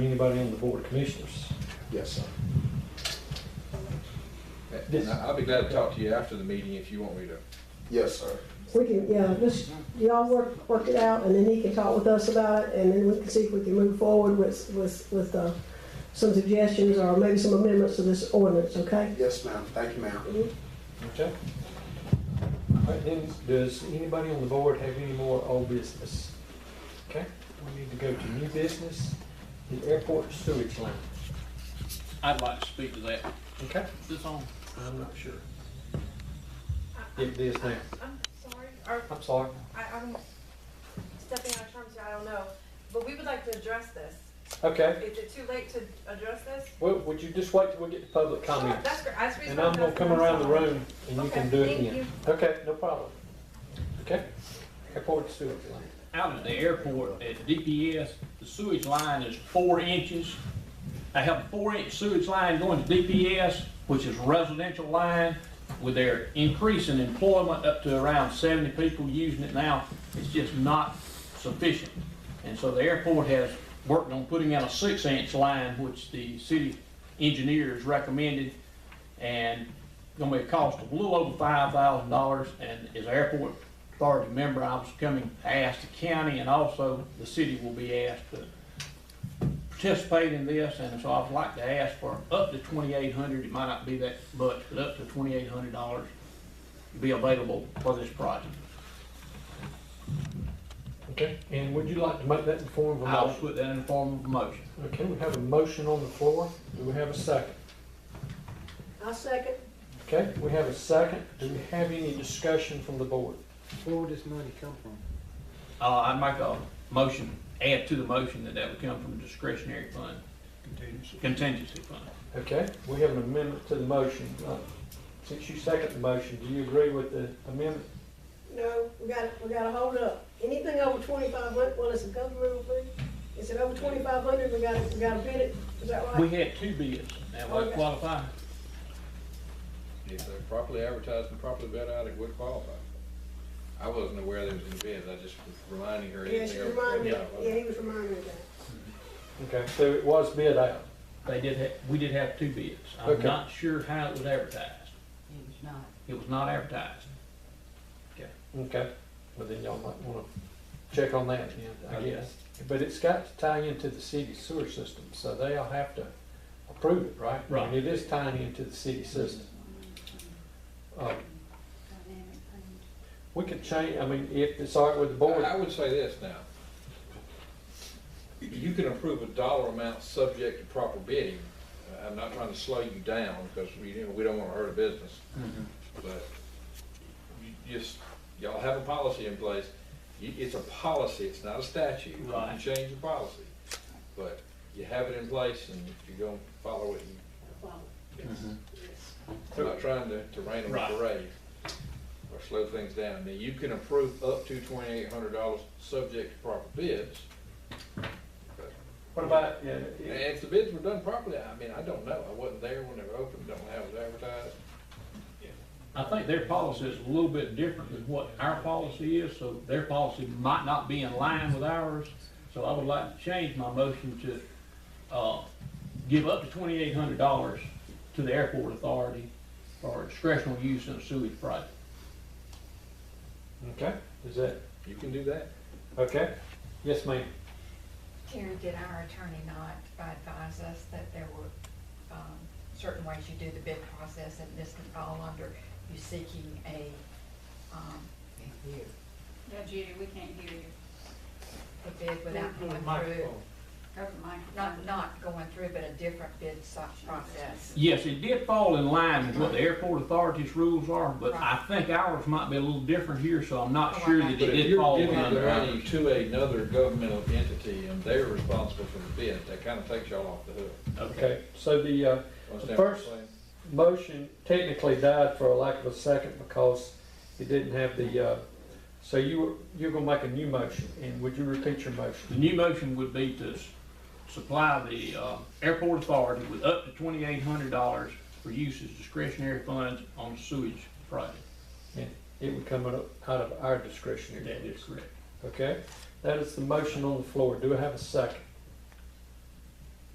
anybody on the board of commissioners. Yes, sir. This- And I- I'll be glad to talk to you after the meeting if you want me to. Yes, sir. We can, yeah, just, y'all work, work it out, and then he can talk with us about it, and then we can see if we can move forward with, with, with, uh, some suggestions or maybe some amendments to this ordinance, okay? Yes, ma'am. Thank you, ma'am. Okay. All right, then, does anybody on the board have any more old business? Okay, we need to go to new business, the airport sewage line. I'd like to speak to that. Okay. Is this on? I'm not sure. It is now. I'm sorry, or I'm sorry. I, I'm stepping out of terms here, I don't know, but we would like to address this. Okay, Is it too late to address this? well, would you just wait till we get to public Sure, comments? That's great, that's the reason. And I'm gonna come around the room and you can do it Okay, thank then. Okay, no problem. Okay, airport sewage line. Out at the airport at DPS, the sewage line is four inches. They have a four-inch sewage line going to DPS, which is residential line, with their increase in employment up to around seventy people using it now. It's just not sufficient. And so the airport has worked on putting out a six-inch line, which the city engineers recommended. and gonna be a cost of a little over five thousand dollars, and as an airport authority member, I was coming, to ask the county, and also the city will be asked to participate in this, and so I'd like to ask for up to twenty-eight hundred, it might not be that much, but up to twenty-eight hundred dollars to be available for this project. Okay, and would you like to make that in the form of a I'll motion? put that in the form of a motion. Okay, we have a motion on the floor. Do we have a second? I'll second. Okay, we have a second. Do we have any discussion from the board? Where would this money come from? Uh, I'd make a motion, add to the motion that that would come from discretionary fund, Contingency. contingency fund. Okay, we have an amendment to the motion. Uh, Since you second the motion, do you agree with the amendment? No, we gotta, we gotta hold up. Anything over twenty-five hundred, well, it's a government fee. Is it over twenty-five hundred, we gotta, we gotta bid it, is that We right? had two bids, that would qualify. If they're properly advertised and properly vetted out, it would qualify. I wasn't aware there was any bids. I just was reminding her. Yes, anything you else. remind me, Yeah, yeah, he was reminding me of that. Okay, so it was bid out. They did have, we did have two bids. I'm Okay. not sure how it was advertised. It was not. It was not advertised. Okay, but then y'all might wanna check on that then, I Okay. guess. But it's got to tie into the city sewer system, so they'll have to approve it, right? I mean, Right. It is tying into the city system. Uh, Dynamic range. We could change, I mean, if it's all right with the board. I would say this now. You can approve a dollar amount subject to proper bidding. Uh, I'm not trying to slow you down because we, you know, we don't want to hurt a business. But you just, y'all have a policy in place. You, it's a policy, it's not a statute. You can Right. change the policy. But you have it in place and if you don't follow it, you. Mm-hmm. I'm not trying to, to rain on Right. the parade or slow things down. Now, you can approve up to twenty-eight hundred dollars, subject to proper bids. What about, yeah, And it- if the bids were done properly, I mean, I don't know. I wasn't there when they were opened, don't know how it was advertised. I think their policy is a little bit different than what our policy is, so their policy might not be in line with ours. So I would like to change my motion to, uh, give up to twenty-eight hundred dollars to the airport authority for discretional use in a sewage project. okay, is that, You can do that. okay? Yes, ma'am. Terry, did our attorney not advise us that there were um, certain ways you do the bid process and this could fall under you seeking a, um, Yeah, Judy, we can't hear you. a bid without going through, Open microphone. not, not going through, but a different bid so- process? Yes, it did fall in line with what the airport authority's rules are, but I think ours might be a little different here, so I'm not sure that it But if did you're fall giving the under ours. money to another governmental entity and they're responsible for the bid, that kind of takes y'all off the hook. Okay, so the, uh, Understand what I'm First- saying? motion technically died for a lack of a second because it didn't have the, uh, so you, were- you're gonna make a new motion, and would you repeat your The motion? new motion would be to s- supply the uh, airport authority with up to twenty-eight hundred dollars for use as discretionary funds on sewage project. It would come out of- out of our That discretionary. is correct. Okay, that is the motion on the floor. Do I have a second?